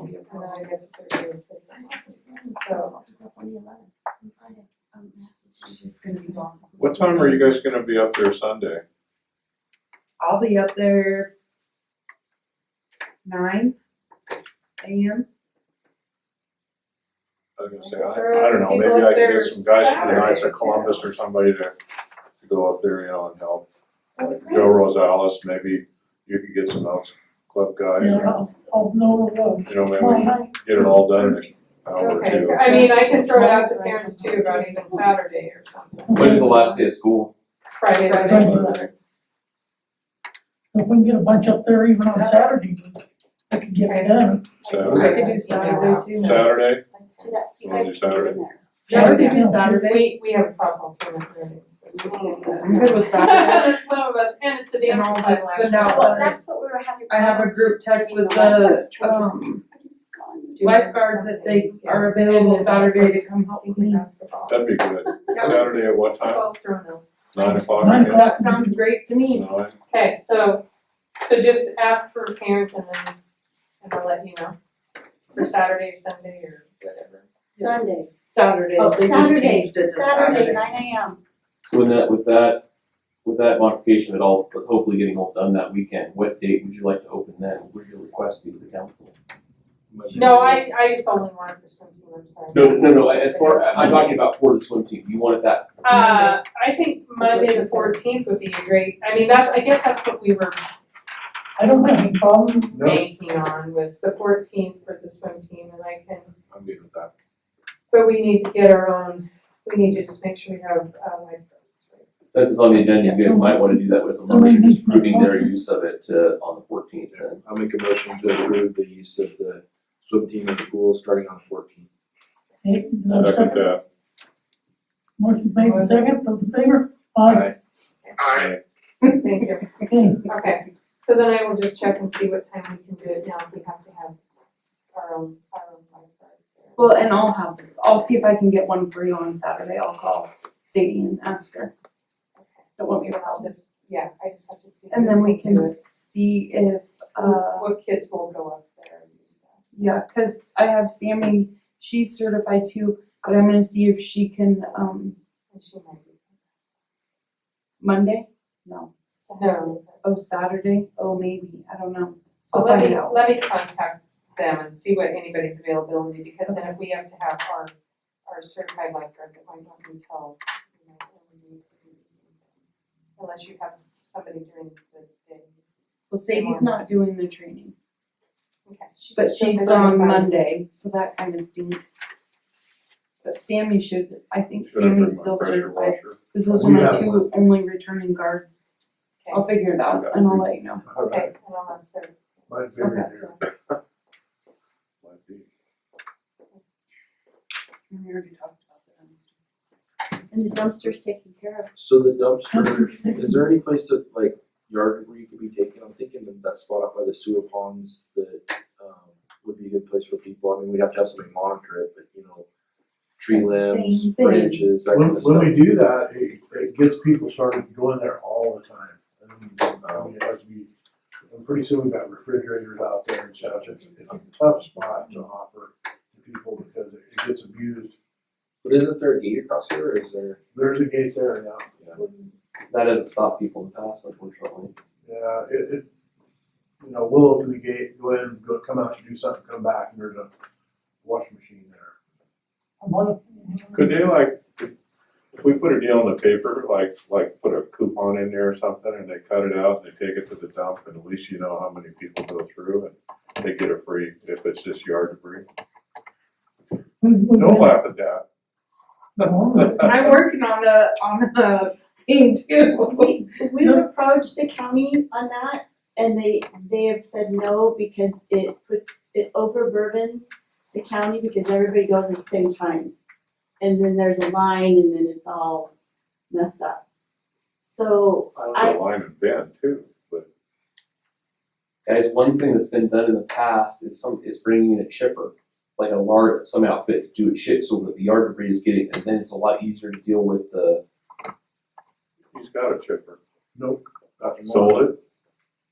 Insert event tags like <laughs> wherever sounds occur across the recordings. and then I guess if there's a place I'm So. It's gonna be long. What time are you guys gonna be up there Sunday? I'll be up there nine AM. I was gonna say, I, I don't know, maybe I can get some guys from the Knights of Columbus or somebody to, to go up there, you know, and help. Like Joe Rosales, maybe you could get some Elks Club guys, Yeah, you I'll, I'll know the, know, maybe we tomorrow can night. get it all done in an hour or Okay, two. I mean, I can throw it out to parents too about even Saturday or something, When's the last day of school? Friday, Friday. Friday. If we can get a bunch up there even on Saturday, we can get it done. Saturday, I could do Saturday too. Saturday, Let's do that, so you Well, guys Yeah, we do Saturday. can get in there. could Yeah. do Saturday. We, we have a softball tournament. I'm good with Saturday. That's <laughs> some of us, and it's a And dance I'll class. just send out, Well, a- that's what we were having. I have a group text with the, um, lifeguards if they are available uh, Saturday to come help me. Basketball. that'd be good. Yeah. Saturday at what time? Football's thrown out. Nine o'clock Nine again? o'clock. That sounds great to me. Nine? Okay, so, so just ask for parents and then, and I'll let you know, for Saturday or Sunday or whatever. Sundays. Saturday, Oh, they just Saturday, changed it to Saturday, Saturday. nine AM. So in that, with that, with that modification at all, but hopefully getting all done that weekend, what date would you like to open then? Would your request be to the council? No, I, I just only wanted for swim team, I'm sorry. No, no, no, as far, I- I'm talking about for the swim team, you wanted that, Uh, I think Monday the That's what fourteenth would be a great, I mean, that's, I guess that's what we were I don't have any problem, banking on, was the fourteenth for the swim team, and I can, I'm good with that. but we need to get our own, we need to just make sure we have, uh, lifeguards, right? since it's on the agenda, you guys might wanna do that with some motion, just proving their use of it, uh, on the fourteenth then. I'll make a motion to approve the use of the swim team in the pool starting on fourteen. Okay, no Second uh, second, that. motion made in second, those in favor? Aye, Aye. Thank you. okay, Okay, so then I will just check and see what time we can do it now, if we have to have our own, our own lifeguards there. <laughs> Well, and I'll have, I'll see if I can get one for you on Saturday, I'll call Sadie and ask her. Okay. That won't be a Well, I'll problem. just, yeah, I just have to see. And then we can do it. see if, uh, What kids will go up there and do stuff. yeah, cause I have Sammy, she's certified too, but I'm gonna see if she can, um, And she might be. Monday? No. No. Oh, Saturday? Oh, maybe, I don't know. So I'll let find me, out. let me contact them and see what anybody's availability, because then if we have to have our, our certified lifeguards, it might not be till, you know, when we need to do it. Unless you have s- somebody during the day. Well, Sadie's not doing the training, Okay. but she's on Monday, so that kinda stinks. But Sammy should, I think Should I bring Sammy's my still pressure certified, washer? cause those are You my have two only returning guards. I'll figure it out and I'll let you know. Okay, and unless they're. Mine's over Okay. Might be. And we already talked about the dumpster. And the dumpster's taken care of. So the dumpster, is there any place that like yard where you could be taken? I'm thinking of that spot up by the sewer ponds that um would be a good place for people. I mean, we'd have to have somebody monitor it, but you know, tree limbs, Same thing. branches, that When, kind of stuff. when we do that, it, it gets people started going there all the time. And, I mean, it has to be, and pretty soon we've got refrigerators out there and such, it's, it's a tough spot to offer to people because it it gets abused. But isn't there a gate across here or is there? There's a gate there now, That doesn't stop people in the past, unfortunately. yeah, it, it, you know, we'll open the gate, go in, go, come out to do something, come back, and there's a washing machine there. a lot Could they like, if we put a deal in the paper, like, like put a coupon in there or something and they cut it out and they take it to the dump and at least you know how many people go through and they get a free, if it's just yard debris. Don't laugh at <laughs> that. I'm working on a, on a thing <laughs> <laughs> too. We've approached the county on that and they, they have said no because it puts, it overburdens the county because everybody goes at the same time. And then there's a line and then it's all messed up. So There's a line and bend too, but Guys, one thing that's been done in the past is some, is bringing in a chipper, like a large, some outfit to do a chip so that the yard debris is getting, and then it's a lot easier to deal with the, he's got a chipper. Dr. Moore? Sold it,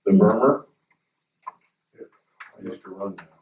the Burmer. I used to run that.